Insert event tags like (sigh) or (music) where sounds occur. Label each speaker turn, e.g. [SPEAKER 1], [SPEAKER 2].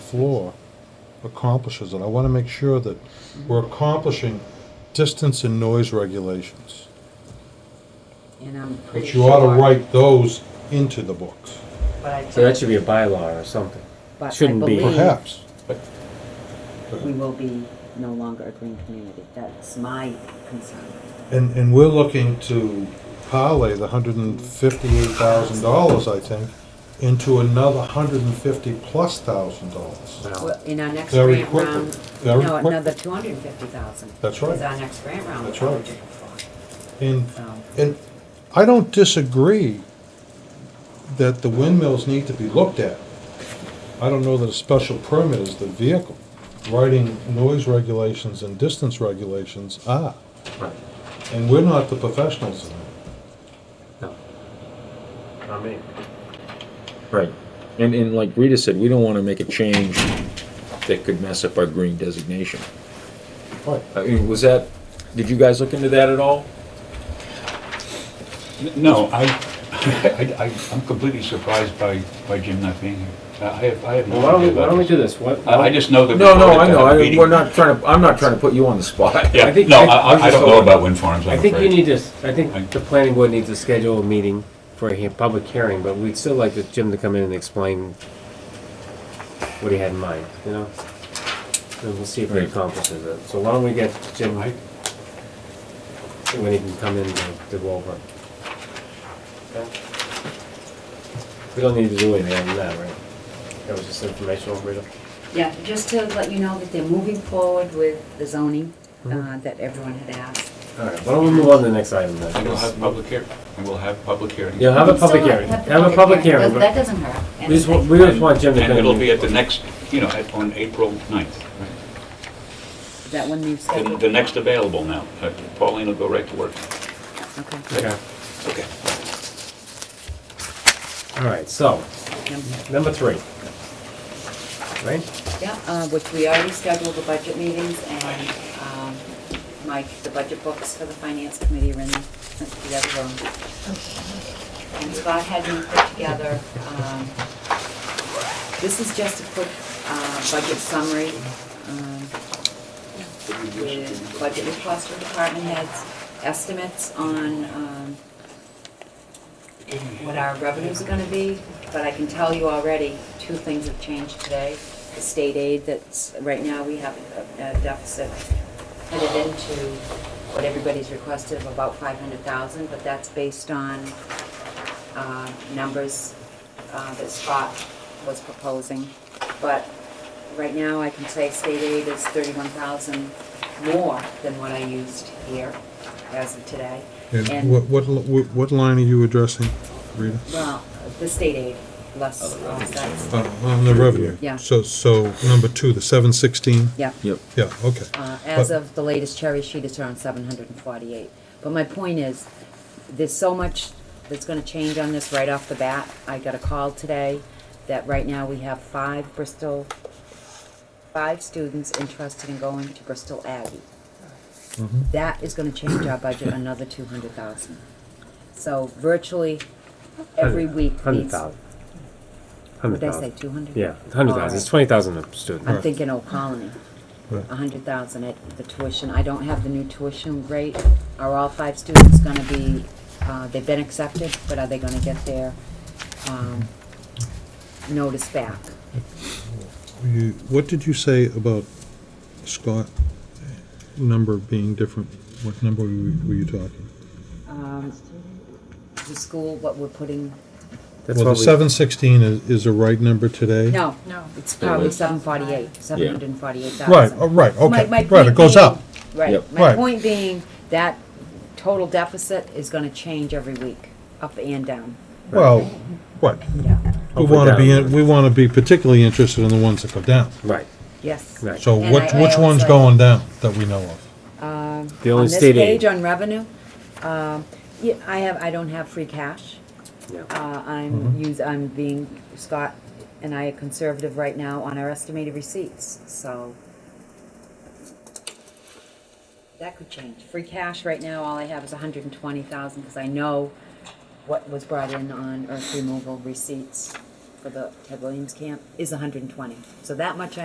[SPEAKER 1] floor accomplishes it. I want to make sure that we're accomplishing distance and noise regulations.
[SPEAKER 2] and I'm pretty
[SPEAKER 1] But
[SPEAKER 2] sure.
[SPEAKER 1] you ought to write those into the books,
[SPEAKER 2] But I
[SPEAKER 3] So that should be a bylaw or something.
[SPEAKER 2] but I
[SPEAKER 3] shouldn't be.
[SPEAKER 2] believe
[SPEAKER 1] perhaps.
[SPEAKER 2] We will be no longer a green community. That's my concern.
[SPEAKER 1] And, and we're looking to parlay the hundred and fifty-eight thousand dollars, I think, into another hundred and fifty plus thousand dollars.
[SPEAKER 3] No.
[SPEAKER 2] Well, In our next
[SPEAKER 1] Very
[SPEAKER 2] grant
[SPEAKER 1] quickly.
[SPEAKER 2] round,
[SPEAKER 1] Very
[SPEAKER 2] no,
[SPEAKER 1] quickly.
[SPEAKER 2] another two hundred and fifty thousand.
[SPEAKER 1] That's right.
[SPEAKER 2] Is our next grant round.
[SPEAKER 1] That's
[SPEAKER 2] we're
[SPEAKER 1] right.
[SPEAKER 2] eligible for.
[SPEAKER 1] And,
[SPEAKER 2] So,
[SPEAKER 1] and I don't disagree that the windmills need to be looked at. I don't know that a special permit is the vehicle. Writing noise regulations and distance regulations are,
[SPEAKER 3] Right.
[SPEAKER 1] and we're not the professionals in it.
[SPEAKER 3] No. Not me.
[SPEAKER 4] Right. And, and like Rita said, we don't want to make a change that could mess up our green designation.
[SPEAKER 1] Right.
[SPEAKER 4] I mean, was that, did you guys look into that at all?
[SPEAKER 5] N- No, I, (laughs) I, I- I'm completely surprised by, by Jim not being here. I I have, I have no
[SPEAKER 3] Well, why don't we,
[SPEAKER 5] idea
[SPEAKER 3] why don't we
[SPEAKER 5] about
[SPEAKER 3] do
[SPEAKER 5] this.
[SPEAKER 3] this? What?
[SPEAKER 5] I, I just know that. we
[SPEAKER 4] No, no,
[SPEAKER 5] voted
[SPEAKER 4] I
[SPEAKER 5] to
[SPEAKER 4] know,
[SPEAKER 5] have a
[SPEAKER 4] I,
[SPEAKER 5] meeting.
[SPEAKER 4] we're not trying to, I'm not trying to put you on the spot.
[SPEAKER 3] I
[SPEAKER 4] (laughs)
[SPEAKER 5] Yeah,
[SPEAKER 3] think-
[SPEAKER 5] no,
[SPEAKER 3] I- I
[SPEAKER 5] I,
[SPEAKER 3] was
[SPEAKER 5] I
[SPEAKER 3] just
[SPEAKER 5] don't know
[SPEAKER 3] hoping-
[SPEAKER 5] about wind farms,
[SPEAKER 3] I
[SPEAKER 5] I'm
[SPEAKER 3] think you
[SPEAKER 5] afraid.
[SPEAKER 3] need to, s- I
[SPEAKER 5] I-
[SPEAKER 3] think the planning board needs to schedule a meeting for a he- public hearing, but we'd still like the Jim to come in and explain what he had in mind, you know? And we'll see if he
[SPEAKER 4] Right.
[SPEAKER 3] accomplishes it. So why don't we get Jim,
[SPEAKER 5] I-
[SPEAKER 3] when he can come in to, to go over. it. Okay? We don't need to do anything on that, right? That was just informational, Rita.
[SPEAKER 2] Yeah, just to let you know that they're moving forward with the zoning,
[SPEAKER 1] Mm-hmm.
[SPEAKER 2] uh, that everyone had asked.
[SPEAKER 3] All right, why don't we move on to the next item then?
[SPEAKER 5] And we'll have public hearing, and we'll have public hearing.
[SPEAKER 3] You'll have a public hearing, have a public hearing,
[SPEAKER 2] That
[SPEAKER 3] but
[SPEAKER 2] doesn't hurt.
[SPEAKER 3] we just, want- we just want Jim to come in.
[SPEAKER 5] And it'll be at the next, you know, at- on April 9th, right?
[SPEAKER 2] That one needs.
[SPEAKER 5] The- the next available now. Uh, Pauline will go right to work.
[SPEAKER 2] Okay.
[SPEAKER 3] Okay,
[SPEAKER 5] Okay.
[SPEAKER 3] all right, so,
[SPEAKER 2] Yeah,
[SPEAKER 3] number three. Right?
[SPEAKER 2] Yeah, uh, which we already scheduled the budget meetings and, um, Mike, the budget books for the finance committee are in the other room. And Scott had me put together, um, this is just a quick, uh, budget summary, um, with budget requests for department heads, estimates on, um, what our revenues are gonna be, but I can tell you already, two things have changed today. The state aid that's, right now, we have a a deficit headed into what everybody's requested of about five hundred thousand, but that's based on, uh, numbers, uh, that Scott was proposing. But right now, I can say state aid is thirty-one thousand more than what I used here as of today.
[SPEAKER 1] And what, what, what what line are you addressing, Rita?
[SPEAKER 2] Well, the state aid, less, uh, that's,
[SPEAKER 1] On- On the revenue?
[SPEAKER 2] Yeah.
[SPEAKER 1] So, so number two, the seven sixteen?
[SPEAKER 2] yeah.
[SPEAKER 4] Yep.
[SPEAKER 1] Yeah, okay.
[SPEAKER 2] Uh, As of the latest cherry sheet, it's around seven hundred and forty-eight. But my point is, there's so much that's gonna change on this right off the bat. I got a call today that right now we have five Bristol, five students interested in going to Bristol Aggie. That is gonna change our budget another two hundred thousand. So virtually every week needs.
[SPEAKER 3] Hundred thousand. Hundred
[SPEAKER 2] What did I say,
[SPEAKER 3] thousand.
[SPEAKER 2] two hundred?
[SPEAKER 3] Yeah, hundred thousand, it's twenty thousand a student.
[SPEAKER 2] I'm thinking Old Colony.
[SPEAKER 1] Right.
[SPEAKER 2] A hundred thousand at the tuition. I don't have the new tuition rate. Are all five students gonna be, uh, they've been accepted, but are they gonna get their, um, notice back?
[SPEAKER 1] You- What did you say about Scott number being different? What number were you were you talking?
[SPEAKER 2] Um, the school, what we're putting,
[SPEAKER 3] That's
[SPEAKER 1] Well,
[SPEAKER 3] what
[SPEAKER 1] the
[SPEAKER 3] we-
[SPEAKER 1] seven sixteen is, is a right number today?
[SPEAKER 2] no. No. It's probably seven forty-eight, seven hundred and forty-eight thousand.
[SPEAKER 1] Right, oh, right,
[SPEAKER 2] My-
[SPEAKER 1] okay,
[SPEAKER 2] my
[SPEAKER 1] right, it
[SPEAKER 2] point
[SPEAKER 1] goes
[SPEAKER 2] being-
[SPEAKER 1] up.
[SPEAKER 2] Right,
[SPEAKER 4] Yep.
[SPEAKER 2] my
[SPEAKER 1] Right.
[SPEAKER 2] point being, that total deficit is gonna change every week, up and down,
[SPEAKER 1] Well, right,
[SPEAKER 2] yeah,
[SPEAKER 1] we
[SPEAKER 3] Hopefully
[SPEAKER 1] wanna be,
[SPEAKER 3] down.
[SPEAKER 1] in- we wanna be particularly interested in the ones that go down.
[SPEAKER 3] Right,
[SPEAKER 2] yes.
[SPEAKER 3] right.
[SPEAKER 1] So
[SPEAKER 2] And
[SPEAKER 1] which,
[SPEAKER 2] I- I
[SPEAKER 1] which one's
[SPEAKER 2] also-
[SPEAKER 1] going down that we know of?
[SPEAKER 3] The
[SPEAKER 2] On
[SPEAKER 3] only
[SPEAKER 2] this
[SPEAKER 3] state aid.
[SPEAKER 2] page on revenue, um, yeah, I have, I don't have free cash.
[SPEAKER 3] Yeah.
[SPEAKER 2] Uh, I'm
[SPEAKER 3] Mm-hmm.
[SPEAKER 2] use, I'm being, Scott and I are conservative right now on our estimated receipts, so. That could change. Free cash right now, all I have is hundred and twenty thousand, cause I know what was brought in on earth removal receipts for the Ted Williams camp is hundred and twenty. So that much I